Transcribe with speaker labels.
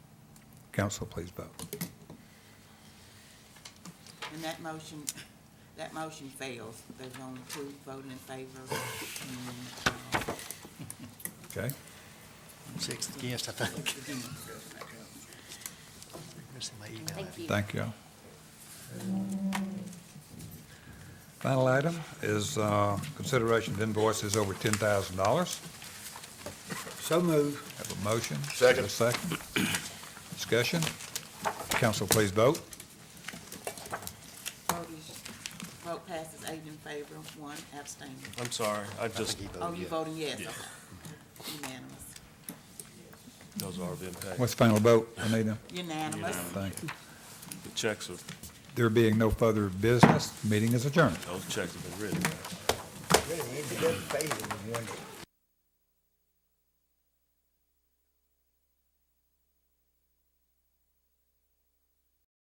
Speaker 1: Council, please vote.
Speaker 2: And that motion, that motion fails. There's only two voting in favor. and, uh,
Speaker 1: Okay?
Speaker 3: Six against, I think. Missing my email.
Speaker 4: Thank you.
Speaker 1: Thank you. Final item is uh, consideration of invoices over $10,000.
Speaker 5: So move.
Speaker 1: Have a motion?
Speaker 5: Second.
Speaker 1: A second. Discussion? Council, please vote.
Speaker 2: Vote is, vote passes eight in favor, one abstaining.
Speaker 6: I'm sorry, I
Speaker 3: I think
Speaker 6: just,
Speaker 3: he
Speaker 2: Oh,
Speaker 3: voted
Speaker 2: you
Speaker 3: yes.
Speaker 2: voting yes,
Speaker 6: Yeah.
Speaker 2: okay. Unanimous.
Speaker 6: those are being paid.
Speaker 1: What's the final vote, Anita?
Speaker 2: Unanimous.
Speaker 1: Thank you.
Speaker 6: The checks are,
Speaker 1: There being no further business, meeting is adjourned.
Speaker 6: those checks have been written.
Speaker 5: Really, it doesn't phase them, wouldn't it?